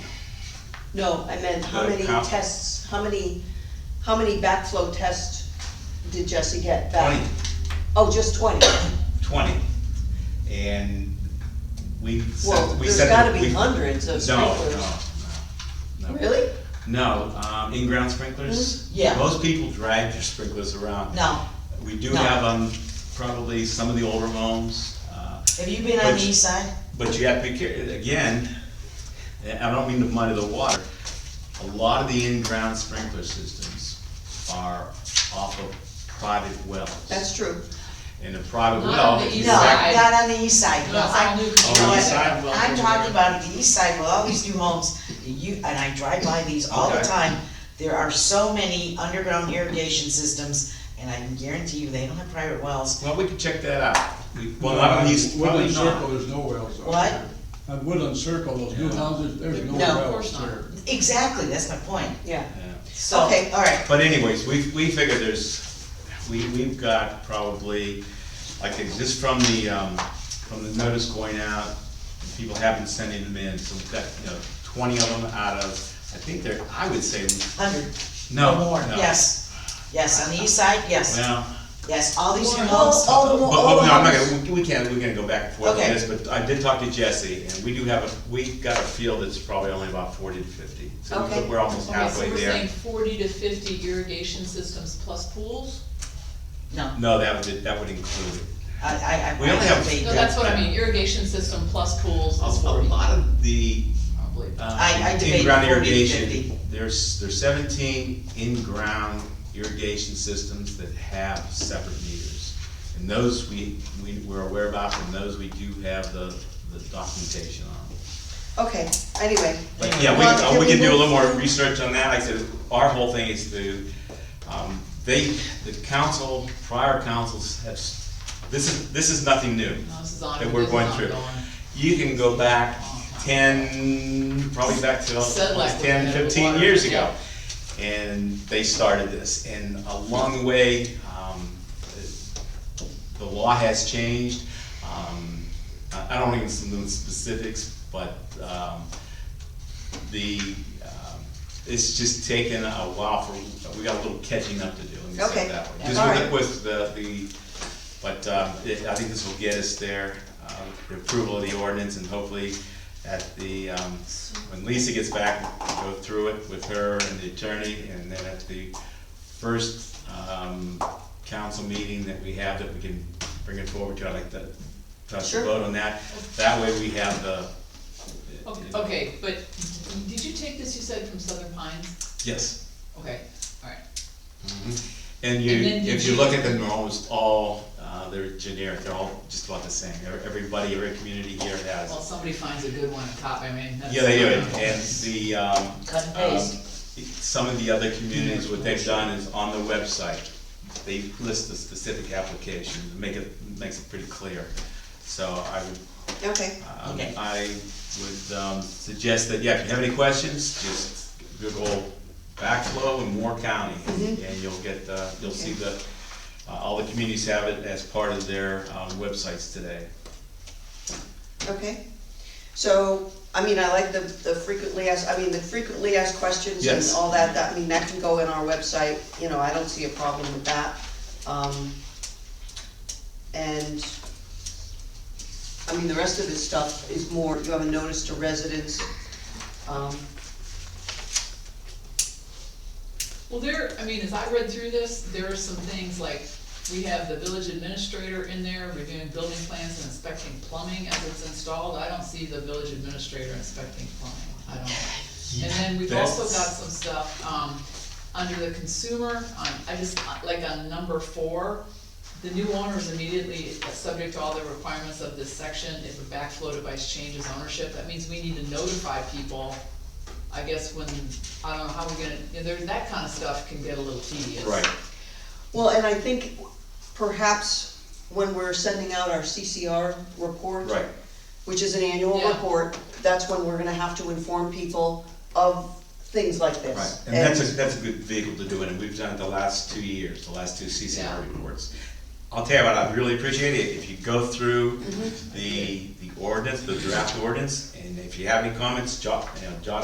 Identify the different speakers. Speaker 1: No, I meant how
Speaker 2: The
Speaker 1: many
Speaker 2: count.
Speaker 1: tests, how many, how many backflow tests did Jesse get back?
Speaker 2: Twenty.
Speaker 1: Oh, just twenty?
Speaker 2: 20. And we
Speaker 1: Well,
Speaker 2: sent, we
Speaker 1: there's
Speaker 2: sent.
Speaker 1: gotta be
Speaker 2: we-
Speaker 1: hundreds of
Speaker 2: No,
Speaker 1: sprinklers.
Speaker 2: No, no, no.
Speaker 1: Really?
Speaker 2: No, um, in-ground sprinklers?
Speaker 1: Mhm, yeah.
Speaker 2: Most people drag their sprinklers around.
Speaker 3: No,
Speaker 2: We do
Speaker 3: no.
Speaker 2: have, um, probably some of the older homes, uh,
Speaker 3: have you been on the
Speaker 2: Which-
Speaker 3: east side?
Speaker 2: but you have to be careful, again, and I don't mean to muddy the water. A lot of the in-ground sprinkler systems are off of private wells.
Speaker 1: That's true.
Speaker 2: And the private
Speaker 4: Not
Speaker 2: well.
Speaker 4: on the
Speaker 2: if
Speaker 4: east
Speaker 2: you
Speaker 3: No,
Speaker 2: back-
Speaker 4: side.
Speaker 3: not on the east side, no,
Speaker 4: No, it's
Speaker 3: I,
Speaker 4: all new
Speaker 2: Oh,
Speaker 3: you know
Speaker 2: east side,
Speaker 3: what,
Speaker 2: well,
Speaker 3: I'm
Speaker 2: okay.
Speaker 3: talking about the east side, with all these new homes, you, and I drive by these all the
Speaker 2: Okay.
Speaker 3: time. There are so many underground irrigation systems, and I can guarantee you, they don't have private wells.
Speaker 2: Well, we can check that out. We- Well, not on the east, probably
Speaker 5: Woodland Circle,
Speaker 2: not.
Speaker 5: there's no wells out
Speaker 3: What?
Speaker 5: there. On Woodland Circle, those new
Speaker 2: Yeah.
Speaker 5: houses, there's no
Speaker 1: No, of
Speaker 5: wells
Speaker 4: course not.
Speaker 5: there.
Speaker 3: Exactly, that's my point,
Speaker 1: Yeah.
Speaker 2: Yeah.
Speaker 3: so,
Speaker 1: Okay.
Speaker 3: okay, all right,
Speaker 2: But anyways, we, we figure there's, we, we've got probably, like, it's just from the, um, from the notice going out, people have been sending them in, so we've got, you know, twenty of them out of, I think they're, I would say,
Speaker 3: hundred.
Speaker 2: no,
Speaker 3: or more.
Speaker 2: no.
Speaker 3: Yes, yes, on the east side, yes,
Speaker 2: Well,
Speaker 3: yes, all these new
Speaker 4: More.
Speaker 3: homes,
Speaker 2: but,
Speaker 3: all the,
Speaker 2: but- no,
Speaker 3: all the
Speaker 2: I'm not
Speaker 3: homes.
Speaker 2: gonna, we- we can't, we're gonna go back and forth on
Speaker 3: Okay.
Speaker 2: this, but I did talk to Jesse, and we do have a, we got a field that's probably only about forty to fifty. So
Speaker 1: Okay.
Speaker 2: we're almost
Speaker 4: Okay, so
Speaker 2: halfway
Speaker 4: we're
Speaker 2: there.
Speaker 4: saying forty to fifty irrigation systems plus pools?
Speaker 3: No,
Speaker 2: No, that would, that would include it.
Speaker 3: I, I, I.
Speaker 2: We only have-
Speaker 3: I-
Speaker 4: No, that's what I mean, irrigation system plus pools
Speaker 2: A
Speaker 4: is
Speaker 2: a
Speaker 4: forty,
Speaker 2: lot of the,
Speaker 4: probably.
Speaker 3: I
Speaker 2: uh,
Speaker 3: debate
Speaker 2: in-ground
Speaker 3: 40 to
Speaker 2: irrigation,
Speaker 3: 50.
Speaker 2: there's, there's seventeen in-ground irrigation systems that have separate meters. And those we, we, we're aware about, and those we do have the, the documentation on.
Speaker 1: Okay, anyway.
Speaker 2: But yeah, we,
Speaker 1: Well,
Speaker 2: uh, we can do a
Speaker 1: move
Speaker 2: little more
Speaker 1: to-
Speaker 2: research on that, like I said, our whole thing is to, um, they, the council, prior councils have, s- this is, this is nothing new
Speaker 4: No, this is on,
Speaker 2: that we're going through. You can go back ten, probably back to
Speaker 4: Said like
Speaker 2: almost
Speaker 4: we're
Speaker 2: ten,
Speaker 4: gonna have
Speaker 2: fifteen
Speaker 4: water,
Speaker 2: years
Speaker 4: yeah.
Speaker 2: ago. And they started this, and along the way, um, the law has changed. Um, I, I don't even know the specifics, but, um, the, um, it's just taken a while for, we got a little catching up to do, let me say
Speaker 1: Okay.
Speaker 2: it that way.
Speaker 1: All right.
Speaker 2: Just with, the- with the, the, but, um, it- I think this will get us there, um, the approval of the ordinance and hopefully at the, um, when Lisa gets back, go through it with her and the attorney and then at the first, um, council meeting that we have that we can bring it forward to, I'd like to touch
Speaker 1: Sure.
Speaker 2: the vote on that. That way we have the.
Speaker 4: Okay, okay, but did you take this, you said, from Southern Pines?
Speaker 2: Yes.
Speaker 4: Okay, alright.
Speaker 2: And you,
Speaker 4: And then
Speaker 2: if
Speaker 4: did
Speaker 2: you
Speaker 4: you-
Speaker 2: look at them, they're almost all, uh, they're generic, they're all just about the same, Every- everybody, every community here
Speaker 4: Well,
Speaker 2: has.
Speaker 4: somebody finds a good one, and cop, I mean, that's.
Speaker 2: Yeah, they do, it. and the, um,
Speaker 3: Cut and
Speaker 2: um,
Speaker 3: paste.
Speaker 2: some of the other communities, what they've done is on the website, they list the specific application, to make it, makes it pretty clear. So I would
Speaker 1: Okay,
Speaker 2: um,
Speaker 3: Okay.
Speaker 2: I would um, suggest that, yeah, if you have any questions, just Google backflow in Moore County, and and you'll get, uh, you'll see the, uh, all the communities have it as part of their um, websites today.
Speaker 1: okay. So, I mean, I like the, the frequently asked, I mean, the frequently asked questions and
Speaker 2: Yes.
Speaker 1: all that, that, I mean, that can go in our website, you know, I don't see a problem with that. Um, and, I mean, the rest of this stuff is more, you have a notice to residents. Um,
Speaker 4: Well, there, I mean, as I read through this, there are some things like, we have the village administrator in there reviewing building plans and inspecting plumbing as it's installed. I don't see the village administrator inspecting plumbing, I don't. And then we've also got
Speaker 2: That's-
Speaker 4: some stuff, um, under the consumer, on, I just, like on number four, the new owner is immediately subject to all the requirements of this section if a backflow device changes ownership. That means we need to notify people I guess when, I don't know how we're gonna, you know, there, that kind of stuff can get a little tedious.
Speaker 2: Right,
Speaker 1: Well, and I think perhaps when we're sending out our CCR report.
Speaker 2: right.
Speaker 1: Which is an annual
Speaker 4: Yeah.
Speaker 1: report, that's when we're gonna have to inform people of things like this.
Speaker 2: Right, and that's a, that's a good vehicle to do it, and we've done it the last two years, the last two
Speaker 4: Yeah.
Speaker 2: CCR reports. I'll tell you what, I'd really appreciate it, if you go through the, the ordinance, the draft ordinance, and if you have any comments, jot, you know, jot